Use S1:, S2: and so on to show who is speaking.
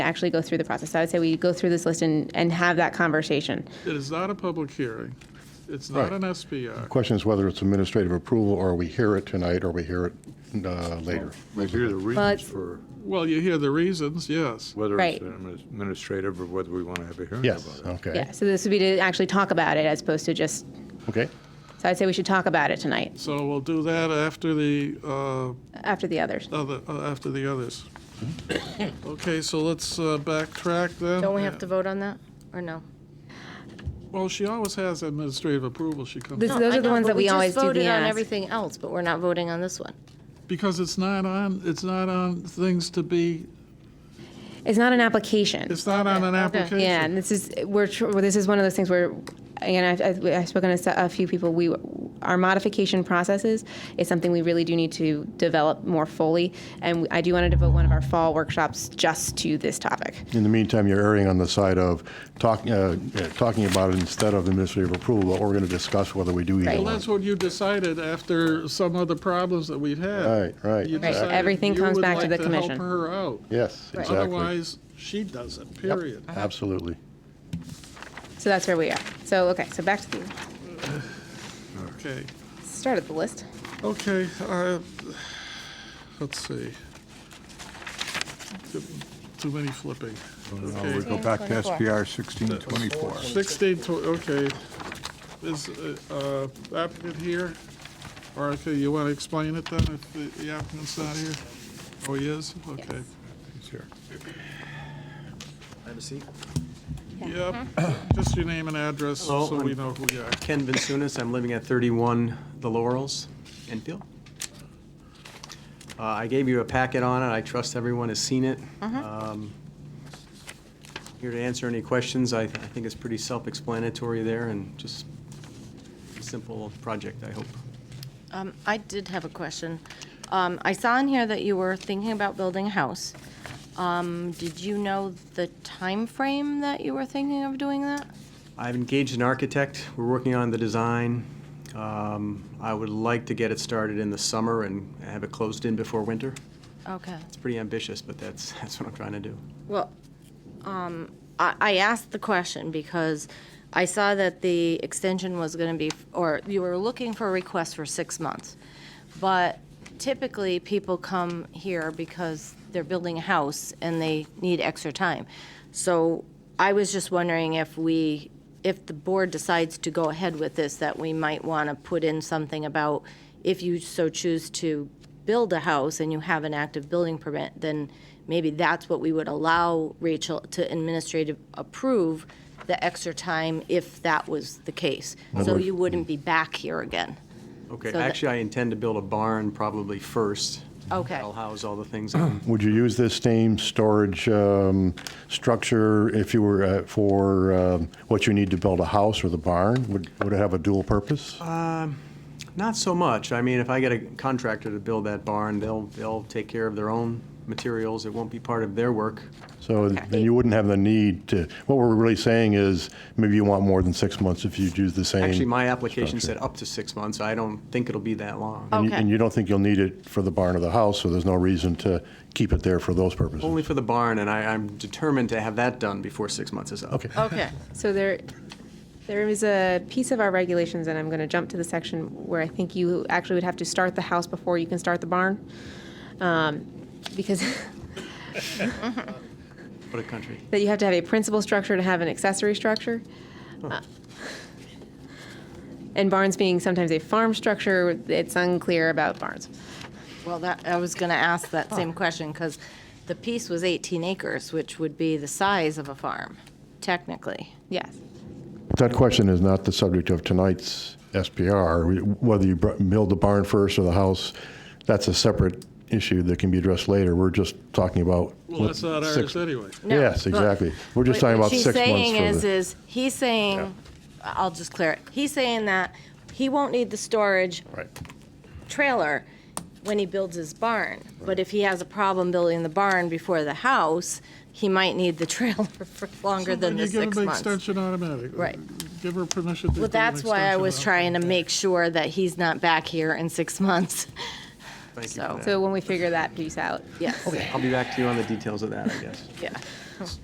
S1: actually go through the process. I would say we go through this list and, and have that conversation.
S2: It is not a public hearing. It's
S3: Right.
S2: not an SPR.
S3: Question is whether it's administrative approval, or we hear it tonight, or we hear it uh, later.
S4: Like, here are the reasons
S1: But-
S4: for
S2: Well, you hear the reasons, yes.
S4: whether it's
S1: Right.
S4: admi- administrative or whether we want to have a hearing about
S3: Yes,
S4: it.
S3: okay.
S1: Yeah, so this would be to actually talk about it as opposed to just,
S3: Okay,
S1: so I'd say we should talk about it tonight,
S2: So we'll do that after the, uh,
S1: after the others.
S2: other, uh, after the others. Okay, so let's uh, backtrack then.
S5: Don't we have to vote on that, or no?
S2: Well, she always has administrative approval she comes,
S1: This- Those
S5: I
S1: are the
S5: know,
S1: ones
S5: but
S1: that we
S5: just
S1: always do the
S5: voted on
S1: ask.
S5: everything else, but we're not voting on this one.
S2: because it's not on, it's not on things to be,
S1: It's not an application.
S2: it's not on an
S5: Okay, okay.
S2: application.
S1: Yeah, and this is, we're, tr- well, this is one of those things where, again, I've- I've, I've spoken to s- a few people, we, our modification processes is something we really do need to develop more fully, and I do want to devote one of our fall workshops just to this topic.
S3: in the meantime, you're erring on the side of talking, uh, yeah, talking about it instead of administrative approval, but we're going to discuss whether we do either
S1: Right.
S2: Well,
S3: one.
S2: that's what you decided after some of the problems that we've had.
S3: Right, right,
S2: You
S3: right.
S2: decided
S1: Everything
S2: you
S1: comes
S2: would
S1: back to
S2: like
S1: the
S2: help
S1: commission.
S2: her out.
S3: Yes, exactly.
S2: Otherwise, she does it,
S3: Yep,
S2: period.
S3: Absolutely.
S1: So that's where we are. So, okay, so back to the
S2: Okay,
S1: start of the list.
S2: okay, uh, let's see. Too many flipping.
S4: Now we
S2: Okay,
S4: Oh, go back to SPR 1624.
S2: 16, tw- okay. Is uh, uh, applicant here? Or, okay, you want to explain it then, if the- the applicant's not here? Oh, he is? Okay.
S4: It's here.
S6: Have a seat.
S2: Yep,
S5: Mm-hmm.
S2: just your name and address,
S6: Hello,
S2: so we
S6: I'm-
S2: know who you are.
S6: Ken Vincunis, I'm living at 31 The Laurels, Enfield. Uh, I gave you a packet on it, I trust everyone has seen it. Um, Here to answer any questions, I I think it's pretty self-explanatory there, and just a simple project, I hope.
S5: Um, I did have a question. Um, I saw in here that you were thinking about building a house. Um, Did you know the time frame that you were thinking of doing that?
S6: I've engaged an architect, we're working on the design. Um, I would like to get it started in the summer and have it closed in before winter.
S5: Okay.
S6: It's pretty ambitious, but that's, that's what I'm trying to do.
S5: Well, um, I, I asked the question because I saw that the extension was gonna be, or you were looking for a request for six months. But typically, people come here because they're building a house and they need extra time. So I was just wondering if we, if the board decides to go ahead with this, that we might wanna put in something about if you so choose to build a house and you have an active building permit, then maybe that's what we would allow Rachel to administrative approve the extra time if that was the case. So you wouldn't be back here again.
S6: Okay,
S5: So that-
S6: actually, I intend to build a barn probably first.
S5: Okay.
S6: I'll house all the things. I'm-
S3: Would you use this same storage um, structure if you were uh, for um, what you need to build a house or the barn? Would would it have a dual purpose?
S6: Not so much. I mean, if I get a contractor to build that barn, they'll, they'll take care of their own materials. It won't be part of their work.
S3: So then you wouldn't have the need to, what we're really saying is, maybe you want more than six months if you do the same.
S6: Actually, my application
S3: structure.
S6: said up to six months. I don't think it'll be that long.
S3: And you-
S5: Okay.
S3: And you don't think you'll need it for the barn or the house, so there's no reason to keep it there for those purposes?
S6: Only for the barn, and I, I'm determined to have that done before six months is up.
S3: Okay.
S5: Okay.
S1: So there, there is a piece of our regulations, and I'm going to jump to the section where I think you actually would have to start the house before you can start the barn. Um, Because
S6: What a country.
S1: that you have to have a principal structure to have an accessory structure. Uh, And barns being sometimes a farm structure, it's unclear about barns.
S5: Well, that, I was gonna ask that same question, because the piece was 18 acres, which would be the size of a farm, technically.
S1: Yes.
S3: That question is not the subject of tonight's SPR. We- Whether you br- build the barn first or the house, that's a separate issue that can be addressed later. We're just talking about.
S2: Well, that's not ours
S3: six-
S2: anyway.
S5: No,
S3: Yes,
S5: but-
S3: exactly. We're just
S5: What-
S3: talking
S5: what
S3: about six months.
S5: she's
S3: for
S5: saying is,
S3: the-
S5: is, he's saying, I'll just clear it, he's saying that he won't need the storage
S3: Right.
S5: trailer when he builds his barn. But if he has a problem building the barn before the house, he might need the trailer for longer than the
S2: You
S5: six
S2: give them
S5: months.
S2: extension automatic.
S5: Right.
S2: Give her permission to
S5: Well,
S2: do an
S5: that's why I
S2: extension
S5: was
S2: auto-
S5: trying to make sure that he's not back here in six months.
S6: Thank you
S5: So-
S6: for that.
S1: So when we figure that piece out.
S5: Yes,
S6: I'll be back to you on the details of that, I guess.
S5: yeah.